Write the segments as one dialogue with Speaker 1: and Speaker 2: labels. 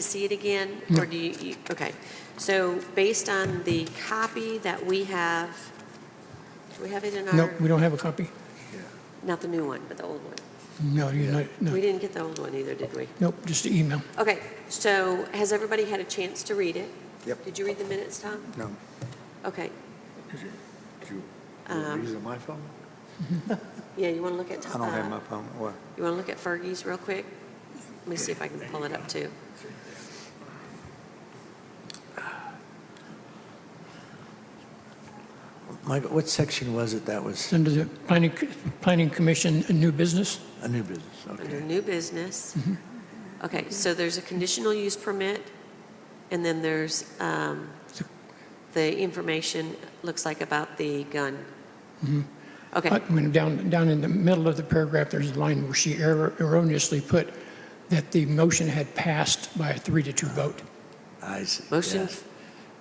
Speaker 1: to see it again? Or do you, you- okay. So based on the copy that we have, do we have it in our?
Speaker 2: Nope, we don't have a copy.
Speaker 1: Not the new one, but the old one.
Speaker 2: No, you're not,
Speaker 1: We
Speaker 2: no,
Speaker 1: didn't get the old one either, did we?
Speaker 2: nope, just the email.
Speaker 1: Okay, so has everybody had a chance to read it?
Speaker 3: Yep.
Speaker 1: Did you read the minutes, Tom?
Speaker 3: No.
Speaker 1: Okay.
Speaker 3: Do you-
Speaker 1: Uh,
Speaker 3: do you use my phone?
Speaker 1: Yeah, you want to look at?
Speaker 3: I don't
Speaker 1: uh,
Speaker 3: have my phone. What?
Speaker 1: You want to look at Fergie's real quick? Let me see if I can pull it up, too.
Speaker 4: Michael, what section was it that was
Speaker 2: Send to the planning, planning commission, a new business.
Speaker 4: a new business?
Speaker 1: Under
Speaker 4: Okay.
Speaker 1: new business.
Speaker 2: Mm-hmm.
Speaker 1: Okay, so there's a conditional use permit, and then there's um, the information, looks like about the gun.
Speaker 2: Mm-hmm.
Speaker 1: Okay,
Speaker 2: But when down, down in the middle of the paragraph, there's a line where she erro- erroneously put that the motion had passed by a three to two vote.
Speaker 4: I see.
Speaker 1: motion,
Speaker 4: yes,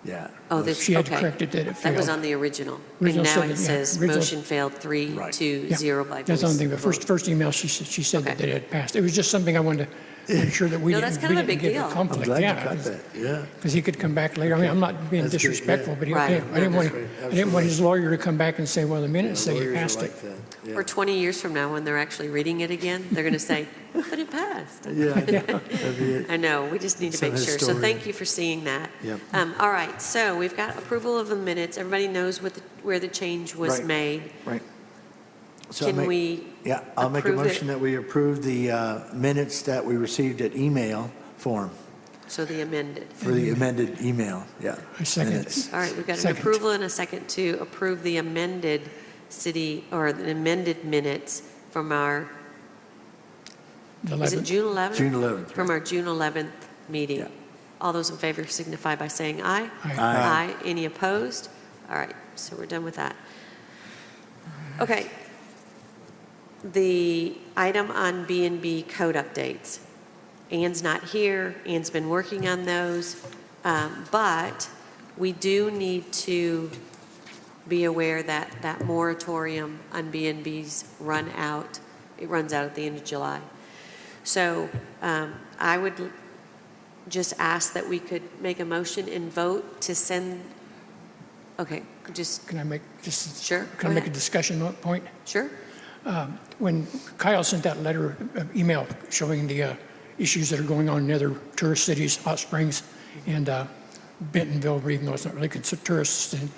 Speaker 4: Yeah.
Speaker 1: oh, this, okay.
Speaker 2: She had corrected that it
Speaker 1: That was
Speaker 2: failed.
Speaker 1: on the original. And
Speaker 2: Original
Speaker 1: now
Speaker 2: said
Speaker 1: it
Speaker 2: that, yeah,
Speaker 1: says,
Speaker 2: original-
Speaker 1: motion failed three
Speaker 4: Right.
Speaker 1: to
Speaker 2: Yeah,
Speaker 1: zero by voice.
Speaker 2: That's on the thing, the
Speaker 1: vote.
Speaker 2: first, first email, she, said- she said that
Speaker 1: Okay.
Speaker 2: it had passed. It was just something I wanted to make sure that we
Speaker 1: No, that's
Speaker 2: didn't,
Speaker 1: kind
Speaker 2: we
Speaker 1: of a
Speaker 2: didn't
Speaker 1: big
Speaker 2: get
Speaker 1: deal.
Speaker 2: a
Speaker 4: I'm
Speaker 2: conflict,
Speaker 4: glad you
Speaker 2: yeah.
Speaker 4: got that, yeah.
Speaker 2: Because he could come back later. I mean, I'm not being
Speaker 4: That's good, yeah.
Speaker 2: disrespectful, but he, I
Speaker 1: Right.
Speaker 2: didn't want,
Speaker 4: That's right,
Speaker 2: I didn't want his
Speaker 4: absolutely.
Speaker 2: lawyer to come back and say, well, the minutes say you
Speaker 4: Lawyers are
Speaker 2: passed it.
Speaker 4: like that, yeah.
Speaker 1: Or 20 years from now, when they're actually reading it again, they're going to say, but it passed.
Speaker 4: Yeah, I know. That'd be it.
Speaker 1: I know, we just need to
Speaker 4: Some
Speaker 1: make sure. So
Speaker 4: historian.
Speaker 1: thank you for seeing that.
Speaker 4: Yep.
Speaker 1: Um, All right, so we've got approval of the minutes. Everybody knows what, the- where the change was
Speaker 4: Right.
Speaker 1: made.
Speaker 4: Right. So I
Speaker 1: Can
Speaker 4: make-
Speaker 1: we,
Speaker 4: Yeah, I'll make a
Speaker 1: approve it?
Speaker 4: motion that we approve the uh, minutes that we received at email form,
Speaker 1: so the amended.
Speaker 4: for the amended email, yeah.
Speaker 2: Mm-hmm. I second it.
Speaker 4: minutes.
Speaker 1: All right, we've got an
Speaker 2: Second.
Speaker 1: approval and a second to approve the amended city, or the amended minutes from our,
Speaker 2: The
Speaker 1: is it
Speaker 2: 11th.
Speaker 1: June 11th?
Speaker 4: June 11th,
Speaker 1: From our June 11th meeting.
Speaker 4: Yeah.
Speaker 1: All those in favor signify by saying aye.
Speaker 2: Aye.
Speaker 1: Aye.
Speaker 4: Aye.
Speaker 1: Any opposed? All right, so we're done with that. Okay. The item on B and B code updates. Ann's not here, Ann's been working on those, um, but we do need to be aware that that moratorium on B and Bs run out, it runs out at the end of July. So um, I would l- just ask that we could make a motion and vote to send, okay, just,
Speaker 2: Can I make, just,
Speaker 1: Sure, go
Speaker 2: can I make a
Speaker 1: ahead.
Speaker 2: discussion mo- point?
Speaker 1: sure?
Speaker 2: When Kyle sent that letter, uh, email showing the uh, issues that are going on in other tourist cities, Hot Springs and uh, Bentonville, even though it's not really considered tourists, and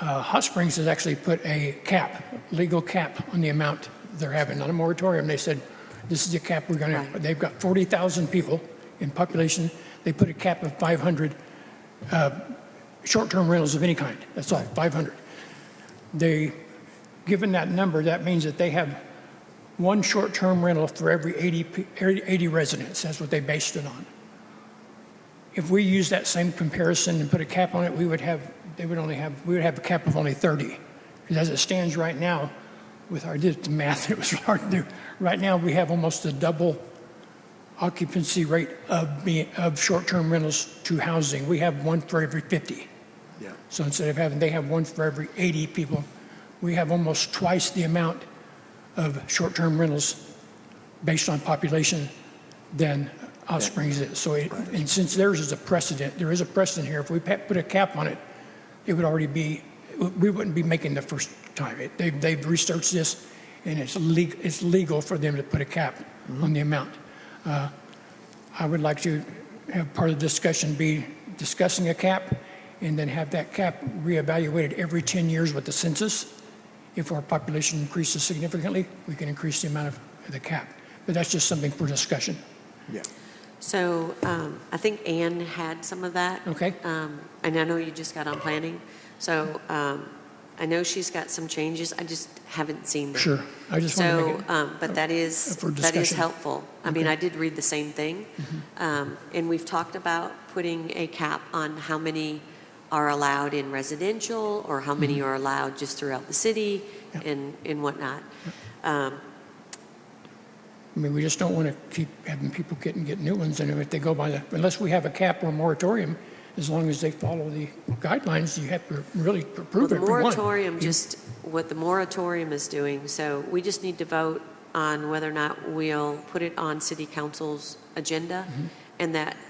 Speaker 2: uh, Hot Springs has actually put a cap, legal cap on the amount they're having, not a moratorium. They said, this is the cap we're going to,
Speaker 1: Right.
Speaker 2: they've got 40,000 people in population. They put a cap of 500 uh, short-term rentals of any kind. That's all, 500. They, given that number, that means that they have one short-term rental for every 80, pe- 80 residents. That's what they based it on. If we use that same comparison and put a cap on it, we would have, they would only have, we would have a cap of only 30. Because as it stands right now, with our, I did the math, it was hard to do. Right now, we have almost the double occupancy rate of, be- of short-term rentals to housing. We have one for every 50.
Speaker 4: Yeah.
Speaker 2: So instead of having, they have one for every 80 people, we have almost twice the amount of short-term rentals based on population than Hot Springs is. So, it- and since theirs is a precedent, there is a precedent here, if we pa- put a cap on it, it would already be, we wouldn't be making the first time. It- They've, they've researched this, and it's legal, it's legal for them to put a cap on the amount. Uh, I would like to have part of the discussion be discussing a cap, and then have that cap reevaluated every 10 years with the census. If our population increases significantly, we can increase the amount of the cap. But that's just something for discussion,
Speaker 4: Yeah.
Speaker 1: So um, I think Ann had some of that.
Speaker 2: okay?
Speaker 1: Um, And I know you just got on planning, so um, I know she's got some changes, I just haven't seen them.
Speaker 2: Sure. I just want to make
Speaker 1: So,
Speaker 2: it, uh,
Speaker 1: um, but that is, that
Speaker 2: for
Speaker 1: is
Speaker 2: discussion. Mm-hmm.
Speaker 1: helpful. I mean, I did read the same thing. Um, And we've talked about putting a cap on how many are allowed in residential or how
Speaker 2: Mm-hmm.
Speaker 1: many are allowed just throughout the city
Speaker 2: Yeah.
Speaker 1: and, and whatnot. Um,
Speaker 2: I mean, we just don't want to keep having people getting, get new ones, and if they go by the, unless we have a cap or a moratorium, as long as they follow the guidelines, you have to really
Speaker 1: Well,
Speaker 2: approve
Speaker 1: the
Speaker 2: every one.
Speaker 1: moratorium, just what the moratorium is doing, so we just
Speaker 2: Mm-hmm.
Speaker 1: need to vote on whether or not we'll put it on city council's agenda and that